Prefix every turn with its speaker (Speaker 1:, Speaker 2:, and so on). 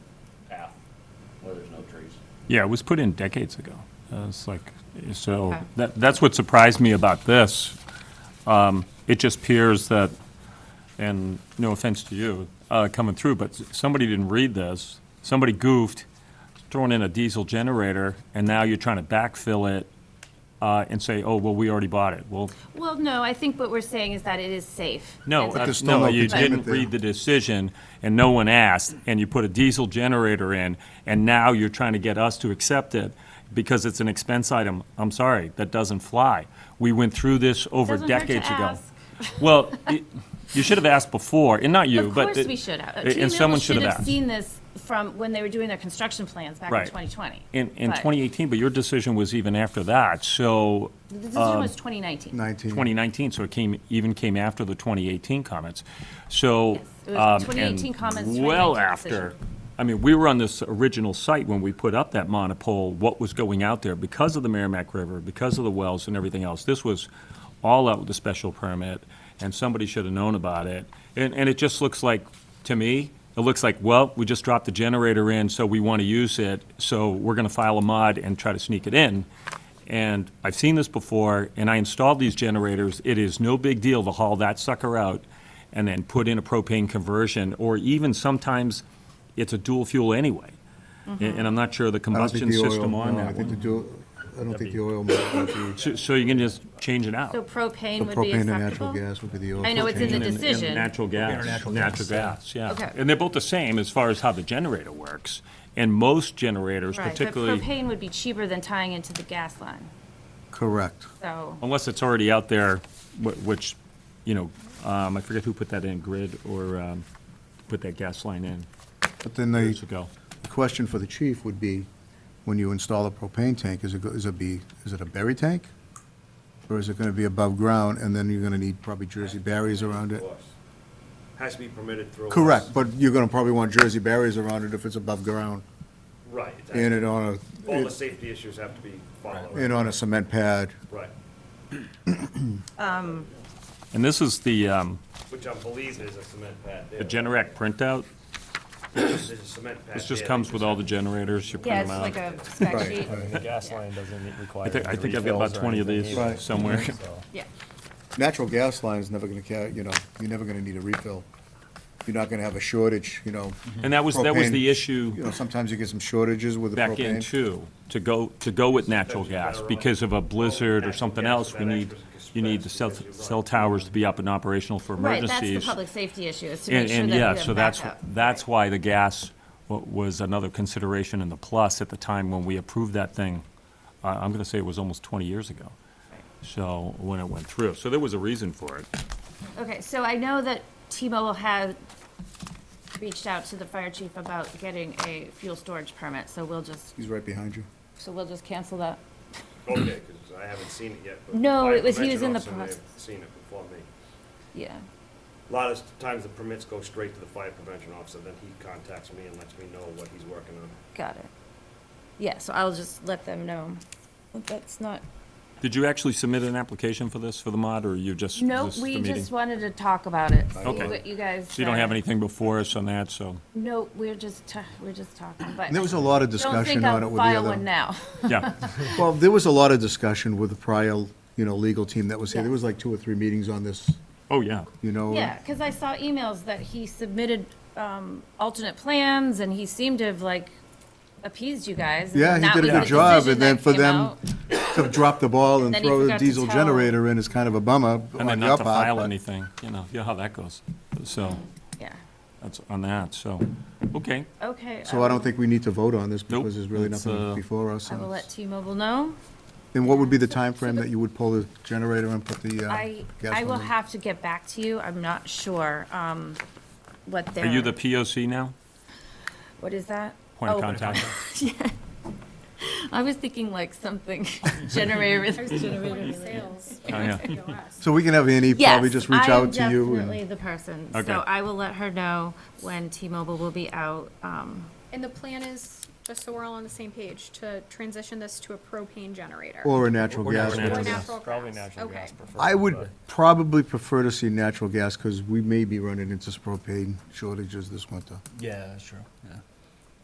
Speaker 1: the trees.
Speaker 2: Yeah, it was put in decades ago. Uh, It's like, so,
Speaker 3: Okay.
Speaker 2: that, that's what surprised me about this. Um, It just appears that, and no offense to you, uh, coming through, but s- somebody didn't read this. Somebody goofed, thrown in a diesel generator, and now you're trying to backfill it uh, and say, oh, well, we already bought it. Well,
Speaker 3: Well, no, I think what we're saying is that it is safe.
Speaker 2: no,
Speaker 3: And so-
Speaker 2: that's-
Speaker 4: still
Speaker 2: no,
Speaker 4: no
Speaker 2: you
Speaker 4: containment
Speaker 2: didn't
Speaker 4: there.
Speaker 2: read the decision, and no one asked, and you put a diesel generator in, and now you're trying to get us to accept it because it's an expense item. I'm sorry, that doesn't fly. We went through this over
Speaker 3: Doesn't hurt to
Speaker 2: decades ago.
Speaker 3: ask.
Speaker 2: Well, it- you should have asked before, and not you,
Speaker 3: Of
Speaker 2: but.
Speaker 3: course
Speaker 2: it-
Speaker 3: we should have.
Speaker 2: and
Speaker 3: Team Millville
Speaker 2: someone should have asked.
Speaker 3: seen this from when they were doing their construction plans back in
Speaker 2: Right.
Speaker 3: 2020.
Speaker 2: In, in
Speaker 3: But
Speaker 2: 2018, but your decision was even after that, so.
Speaker 3: The decision
Speaker 2: um,
Speaker 3: was 2019.
Speaker 4: 19.
Speaker 2: 2019, so it came, even came after the 2018 comments. So.
Speaker 3: Yes, it was
Speaker 2: um,
Speaker 3: 2018 comments,
Speaker 2: and Well
Speaker 3: 2019
Speaker 2: after,
Speaker 3: decision.
Speaker 2: I mean, we were on this original site when we put up that monopole, what was going out there because of the Merrimack River, because of the wells and everything else. This was all out with a special permit, and somebody should have known about it. And, and it just looks like, to me, it looks like, well, we just dropped the generator in, so we want to use it, so we're going to file a mod and try to sneak it in. And I've seen this before, and I installed these generators. It is no big deal to haul that sucker out and then put in a propane conversion, or even sometimes it's a dual fuel anyway. And
Speaker 3: Mm-hmm.
Speaker 2: and I'm not sure the
Speaker 4: I don't think
Speaker 2: combustion
Speaker 4: the oil-
Speaker 2: system on
Speaker 4: no, I
Speaker 2: that
Speaker 4: think the
Speaker 2: one.
Speaker 4: dual, I don't think the oil might might be,
Speaker 2: So- So you can just change it
Speaker 3: So
Speaker 2: out.
Speaker 3: propane
Speaker 4: so
Speaker 3: would be
Speaker 4: propane and natural
Speaker 3: acceptable?
Speaker 4: gas would be the oil.
Speaker 3: I know it's in the
Speaker 2: And- and
Speaker 3: decision.
Speaker 2: Natural gas.
Speaker 5: natural
Speaker 2: Natural
Speaker 5: gas.
Speaker 2: gas, yeah.
Speaker 3: Okay.
Speaker 2: And they're both the same as far as how the generator works. And most generators
Speaker 3: Right, but
Speaker 2: particularly,
Speaker 3: propane would be cheaper than tying into the gas line,
Speaker 4: Correct.
Speaker 3: so.
Speaker 2: unless it's already out there, wh- which, you know, um, I forget who put that in, Grid or um, put that gas line in
Speaker 4: But then the
Speaker 2: years ago.
Speaker 4: the question for the chief would be, when you install a propane tank, is it, go- is it be, is it a berry tank? Or is it going to be above ground, and then you're going to need probably Jersey barriers around it?
Speaker 1: Of course. Has to be permitted through. us.
Speaker 4: Correct, but you're going to probably want Jersey barriers around it if it's above ground,
Speaker 1: Right. it's
Speaker 4: and it
Speaker 1: actually-
Speaker 4: on
Speaker 1: All the
Speaker 4: a,
Speaker 1: safety issues have to be
Speaker 4: and
Speaker 1: followed.
Speaker 4: on a cement pad.
Speaker 1: Right,
Speaker 2: And this is the, um,
Speaker 1: which I believe is a cement pad there.
Speaker 2: the Generac printout.
Speaker 1: There's a cement pad
Speaker 2: This just
Speaker 1: there.
Speaker 2: comes with all the generators, you
Speaker 3: Yeah,
Speaker 2: print
Speaker 3: it's
Speaker 2: them out.
Speaker 3: like a spec sheet.
Speaker 5: The gas line doesn't require.
Speaker 2: I think, I
Speaker 5: any
Speaker 2: think I've got
Speaker 5: refills
Speaker 2: about
Speaker 5: or
Speaker 2: 20 of
Speaker 5: anything
Speaker 2: these
Speaker 5: either,
Speaker 4: Right.
Speaker 2: somewhere.
Speaker 5: so.
Speaker 3: Yeah,
Speaker 4: Natural gas line is never going to carry, you know, you're never going to need a refill. You're not going to have a shortage, you know.
Speaker 2: And that was, that was the
Speaker 4: Propane. You
Speaker 2: issue
Speaker 4: know, sometimes you get some shortages with the
Speaker 2: back in
Speaker 4: propane.
Speaker 2: too, to go, to go with natural gas. Because of a blizzard or something else, we need, you need the cell, cell towers to be up and operational for
Speaker 3: right, that's the
Speaker 2: emergencies.
Speaker 3: public safety issue, is to make
Speaker 2: And,
Speaker 3: sure
Speaker 2: and
Speaker 3: that you
Speaker 2: yeah,
Speaker 3: have
Speaker 2: so that's,
Speaker 3: backup.
Speaker 2: that's why the gas wa- was another consideration in the plus at the time when we approved that thing. Uh, I'm going to say it was almost 20 years ago. So, when it went through. So there was a reason for it.
Speaker 3: Okay, so I know that T-Mobile had reached out to the fire chief about getting a fuel storage permit, so we'll just,
Speaker 4: He's right behind you.
Speaker 3: so we'll just cancel that.
Speaker 1: Okay, because I haven't seen it yet. but
Speaker 3: No,
Speaker 1: my
Speaker 3: it was- he was
Speaker 1: prevention
Speaker 3: in the
Speaker 1: officer may have
Speaker 3: process.
Speaker 1: Seen it before me.
Speaker 3: Yeah.
Speaker 1: A lot of times the permits go straight to the fire prevention officer, then he contacts me and lets me know what he's working on.
Speaker 3: Got it. Yeah, so I'll just let them know. But That's not,
Speaker 2: Did you actually submit an application for this, for the mod, or you just?
Speaker 3: no,
Speaker 2: this is the
Speaker 3: we
Speaker 2: meeting?
Speaker 3: just wanted to talk about it. see
Speaker 2: Okay.
Speaker 3: what You guys.
Speaker 2: So you don't have
Speaker 3: uh,
Speaker 2: anything before us on that, so,
Speaker 3: No, we're just, ta- we're just talking, but.
Speaker 4: And there was a lot of
Speaker 3: Don't think
Speaker 4: discussion on it
Speaker 3: I'll
Speaker 4: with the other.
Speaker 3: file one now.
Speaker 2: yeah.
Speaker 4: Well, there was a lot of discussion with the prior, you know, legal team that was here.
Speaker 3: Yeah.
Speaker 4: There was like two or three meetings on this,
Speaker 2: Oh, yeah.
Speaker 4: you know.
Speaker 3: Yeah, because I saw emails that he submitted um, alternate plans, and he seemed to have like appeased you guys. and
Speaker 4: Yeah, he
Speaker 3: that
Speaker 4: did a
Speaker 3: was the
Speaker 4: good job,
Speaker 3: decision
Speaker 4: and then
Speaker 3: that
Speaker 4: for
Speaker 3: came
Speaker 4: them
Speaker 3: out.
Speaker 4: to drop the ball and
Speaker 3: then he
Speaker 4: throw a
Speaker 3: forgot to
Speaker 4: diesel
Speaker 3: tell-
Speaker 4: generator in is kind of a bummer
Speaker 2: And then
Speaker 4: on your
Speaker 2: not to file
Speaker 4: part.
Speaker 2: anything, you know, you know how that goes. So,
Speaker 3: Yeah,
Speaker 2: that's on that, so, okay.
Speaker 3: okay. um,
Speaker 4: So I don't think we need to vote on this
Speaker 2: Nope,
Speaker 4: because there's really
Speaker 2: it's,
Speaker 4: nothing
Speaker 2: uh,
Speaker 4: before us.
Speaker 3: I
Speaker 4: and
Speaker 3: will let
Speaker 4: it's-
Speaker 3: T-Mobile know.
Speaker 4: Then what would be the
Speaker 3: So- so
Speaker 4: timeframe
Speaker 3: the-
Speaker 4: that you would pull the generator and put the uh,
Speaker 3: I,
Speaker 4: gas
Speaker 3: I will
Speaker 4: line in?
Speaker 3: have to get back to you. I'm not sure um, what their.
Speaker 2: Are you the POC now?
Speaker 3: What is that?
Speaker 2: Point of
Speaker 3: Oh,
Speaker 2: contact?
Speaker 3: I was thinking like something generator.
Speaker 6: Point of sales.
Speaker 2: Oh, yeah.
Speaker 6: POS.
Speaker 4: So we can have Annie probably
Speaker 3: Yes,
Speaker 4: just reach
Speaker 3: I am
Speaker 4: out to you. and-
Speaker 3: definitely the person.
Speaker 2: Okay.
Speaker 3: So I will let her know when T-Mobile will be out. um,
Speaker 6: And the plan is, just so we're all on the same page, to transition this to a propane generator.
Speaker 4: Or a natural gas.
Speaker 2: natural
Speaker 4: whatever.
Speaker 2: gas.
Speaker 5: Probably
Speaker 6: gas.
Speaker 5: natural
Speaker 6: Okay.
Speaker 5: gas preferred.
Speaker 4: I would
Speaker 5: but-
Speaker 4: probably prefer to see natural gas because we may be running into propane shortages this winter.
Speaker 5: Yeah, that's true, yeah.